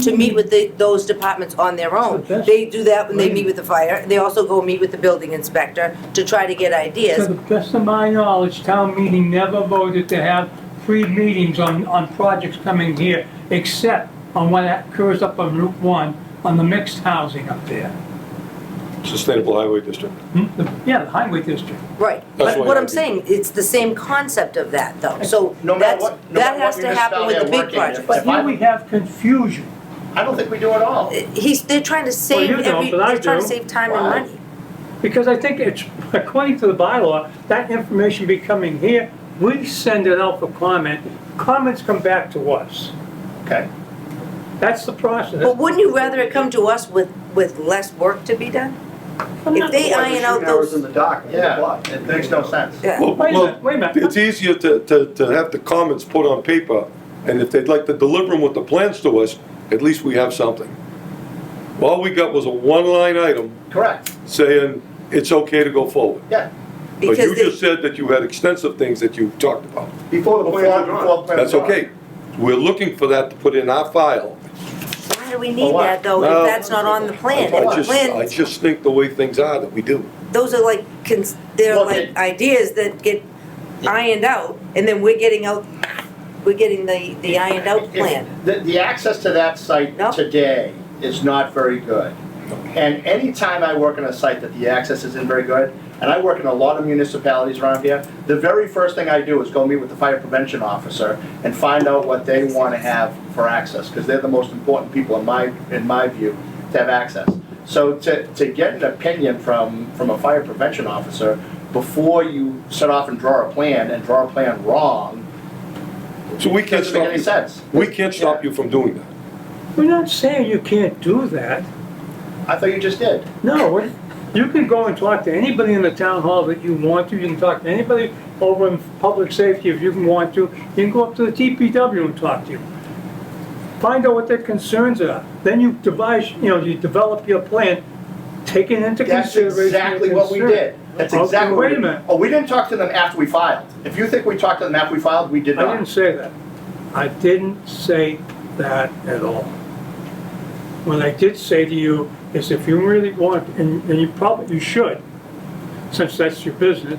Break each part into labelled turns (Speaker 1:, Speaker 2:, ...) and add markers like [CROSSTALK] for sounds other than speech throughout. Speaker 1: to meet with the, those departments on their own.
Speaker 2: That's the best
Speaker 1: They do that when they
Speaker 2: way.
Speaker 1: meet with the fire, they also go meet with the building inspector to try to get
Speaker 2: To
Speaker 1: ideas.
Speaker 2: the best of my knowledge, town meeting never voted to have free meetings on, on projects coming here, except on what occurs up on Route One, on the mixed housing up there.
Speaker 3: Sustainable Highway District.
Speaker 2: Hmm? The- Yeah, the highway district.
Speaker 1: Right,
Speaker 3: That's
Speaker 1: but
Speaker 3: why
Speaker 1: what
Speaker 3: I
Speaker 1: I'm
Speaker 3: do.
Speaker 1: saying, it's the same concept of that though, so
Speaker 4: No matter
Speaker 1: that's,
Speaker 4: what- no
Speaker 1: that
Speaker 4: matter what
Speaker 1: has to happen with the big
Speaker 4: municipality I work in,
Speaker 1: projects.
Speaker 2: But here we have confusion.
Speaker 4: I don't think we do at all.
Speaker 1: uh, He's, they're trying to save
Speaker 5: you don't,
Speaker 1: every,
Speaker 5: but I
Speaker 1: they're trying to
Speaker 5: do.
Speaker 1: save time and
Speaker 4: Why?
Speaker 1: money.
Speaker 5: Because I think it's, according to the bylaw, that information be coming here, we send it out for comment, comments come back to us.
Speaker 4: Okay.
Speaker 5: That's the
Speaker 1: But
Speaker 5: process.
Speaker 1: wouldn't you rather it come to us with, with less work to be done? If they iron out
Speaker 6: Hours in
Speaker 1: those, uh,
Speaker 6: the dock. eight
Speaker 4: Yeah,
Speaker 6: o'clock.
Speaker 4: it makes no sense.
Speaker 1: yeah.
Speaker 3: Well,
Speaker 5: Wait a
Speaker 3: well,
Speaker 5: minute, wait a minute.
Speaker 3: it's easier to, to, to have the comments put on paper, and if they'd like to deliver them with the plans to us, at least we have something. All we got was a one-line item
Speaker 4: Correct,
Speaker 3: saying it's okay to go forward.
Speaker 4: yeah.
Speaker 3: But
Speaker 1: Because
Speaker 3: you
Speaker 1: they-
Speaker 3: just said that you had extensive things that you talked about.
Speaker 4: Before the plan, before the plan.
Speaker 3: That's okay. We're looking for that to put in our file.
Speaker 1: Why do we
Speaker 4: Well,
Speaker 1: need
Speaker 4: why?
Speaker 1: that though,
Speaker 3: No.
Speaker 1: if that's not on the
Speaker 3: I
Speaker 1: plan? If
Speaker 3: I
Speaker 1: the
Speaker 3: just, I
Speaker 1: plan,
Speaker 3: just think the way things are that we do.
Speaker 1: those are like, cons- they're
Speaker 4: Well,
Speaker 1: like ideas that get ironed out, and then we're getting out, we're getting the, the ironed out
Speaker 4: If-
Speaker 1: plan.
Speaker 4: The, the access to that site
Speaker 1: No.
Speaker 4: today is not very good. And anytime I work on a site that the access isn't very good, and I work in a lot of municipalities around here, the very first thing I do is go meet with the fire prevention officer and find out what they want to have for access, because they're the most important people in my, in my view, to have access. So to, to get an opinion from, from a fire prevention officer before you set off and draw a plan and draw a plan wrong,
Speaker 3: So we can't
Speaker 4: doesn't make
Speaker 3: stop
Speaker 4: any
Speaker 3: you.
Speaker 4: sense.
Speaker 3: We can't stop
Speaker 4: Yeah.
Speaker 3: you from doing that.
Speaker 5: We're not saying you can't do that.
Speaker 4: I thought you just did.
Speaker 5: No, we're- you can go and talk to anybody in the town hall that you want to, you can talk to anybody over in public safety if you can want to, you can go up to the TPW and talk to you. Find out what their concerns are, then you devise, you know, you develop your plan, taking into
Speaker 4: That's
Speaker 5: consideration. their
Speaker 4: exactly what we
Speaker 5: concern.
Speaker 4: did. That's
Speaker 5: Okay,
Speaker 4: exactly what we
Speaker 5: wait a
Speaker 4: did.
Speaker 5: minute.
Speaker 4: Oh, we didn't talk to them after we filed. If you think we talked to them after we filed, we did
Speaker 5: I didn't
Speaker 4: not.
Speaker 5: say that. I didn't say that at all. What I did say to you is if you really want, and and you probably, you should, since that's your business,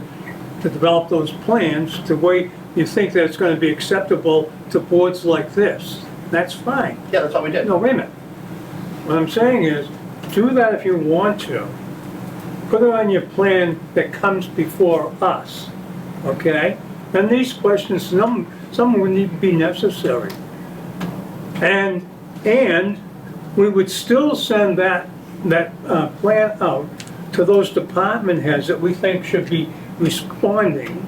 Speaker 5: to develop those plans the way you think that it's gonna be acceptable to boards like this. That's fine.
Speaker 4: Yeah, that's what we did.
Speaker 5: No, wait a minute. What I'm saying is, do that if you want to. Put it on your plan that comes before us, okay? And these questions, some, some would need to be necessary. And, and we would still send that, that, uh, plan out to those department heads that we think should be responding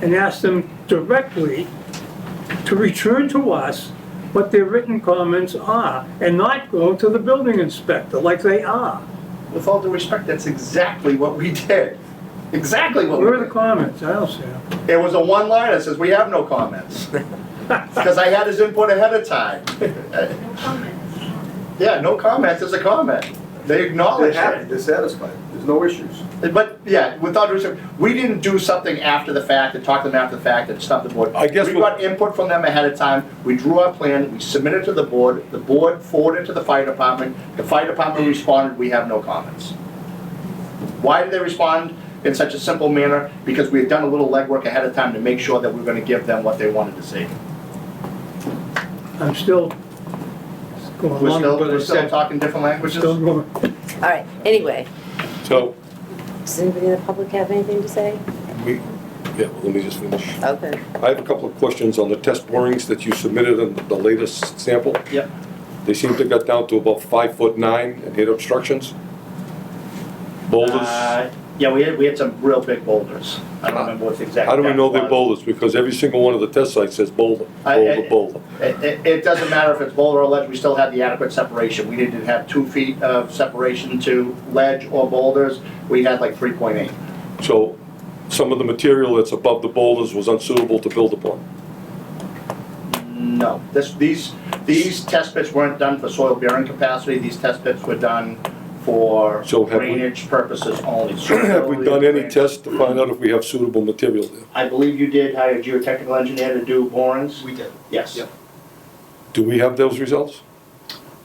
Speaker 5: and ask them directly to return to us what their written comments are and not go to the building inspector like they are.
Speaker 4: With all due respect, that's exactly what we did. Exactly what we
Speaker 5: Where are the
Speaker 4: did.
Speaker 5: comments? I don't see them.
Speaker 4: It was a one line that says, "We have
Speaker 5: [LAUGHS]
Speaker 4: no comments." Because I had his input ahead of time.
Speaker 7: No comments.
Speaker 4: Yeah, no comments is a comment. They
Speaker 6: They're
Speaker 4: acknowledged
Speaker 6: happy,
Speaker 4: it.
Speaker 6: they're satisfied, there's no issues.
Speaker 4: But, yeah, without due respect, we didn't do something after the fact and talk to them after the fact and stuff the board.
Speaker 3: I guess
Speaker 4: We
Speaker 3: what-
Speaker 4: got input from them ahead of time, we drew our plan, we submitted to the board, the board forwarded to the fire department, the fire department responded, we have no comments. Why did they respond in such a simple manner? Because we had done a little legwork ahead of time to make sure that we were gonna give them what they wanted to see.
Speaker 5: I'm still going
Speaker 4: We're
Speaker 5: along
Speaker 4: still,
Speaker 5: with what I
Speaker 4: we're still
Speaker 5: said.
Speaker 4: talking different languages?
Speaker 5: Still going.
Speaker 1: All right, anyway,
Speaker 3: So,
Speaker 1: does anybody in the public have anything to say?
Speaker 3: we, yeah, well, let me just finish.
Speaker 1: Okay.
Speaker 3: I have a couple of questions on the test borings that you submitted on the latest sample.
Speaker 4: Yep.
Speaker 3: They seem to got down to about five foot nine and hit obstructions. Boulders,
Speaker 4: Uh, Yeah, we had, we had some real big boulders. I don't remember what's exactly.
Speaker 3: how do we know they're
Speaker 4: boulders?
Speaker 3: boulders? Because every single one of the test sites says boulder,
Speaker 4: I- I-
Speaker 3: boulder, boulder.
Speaker 4: It, it- it doesn't matter if it's boulder or ledge, we still had the adequate separation. We didn't have two feet of separation to ledge or boulders, we had like three point eight.
Speaker 3: So some of the material that's above the boulders was unsuitable to build upon. [CLEARS THROAT]
Speaker 4: No, this, these, these test pits weren't done for soil bearing capacity, these test pits were done for
Speaker 3: So have we-
Speaker 4: drainage purposes
Speaker 3: [CLEARS THROAT]
Speaker 4: only.
Speaker 3: Have we done any
Speaker 4: test?
Speaker 3: tests to find out if we have suitable material there?
Speaker 4: I believe you did hire a geotechnical engineer to do borings?
Speaker 6: We did.
Speaker 4: Yes.
Speaker 6: Yep.
Speaker 3: Do we have those results?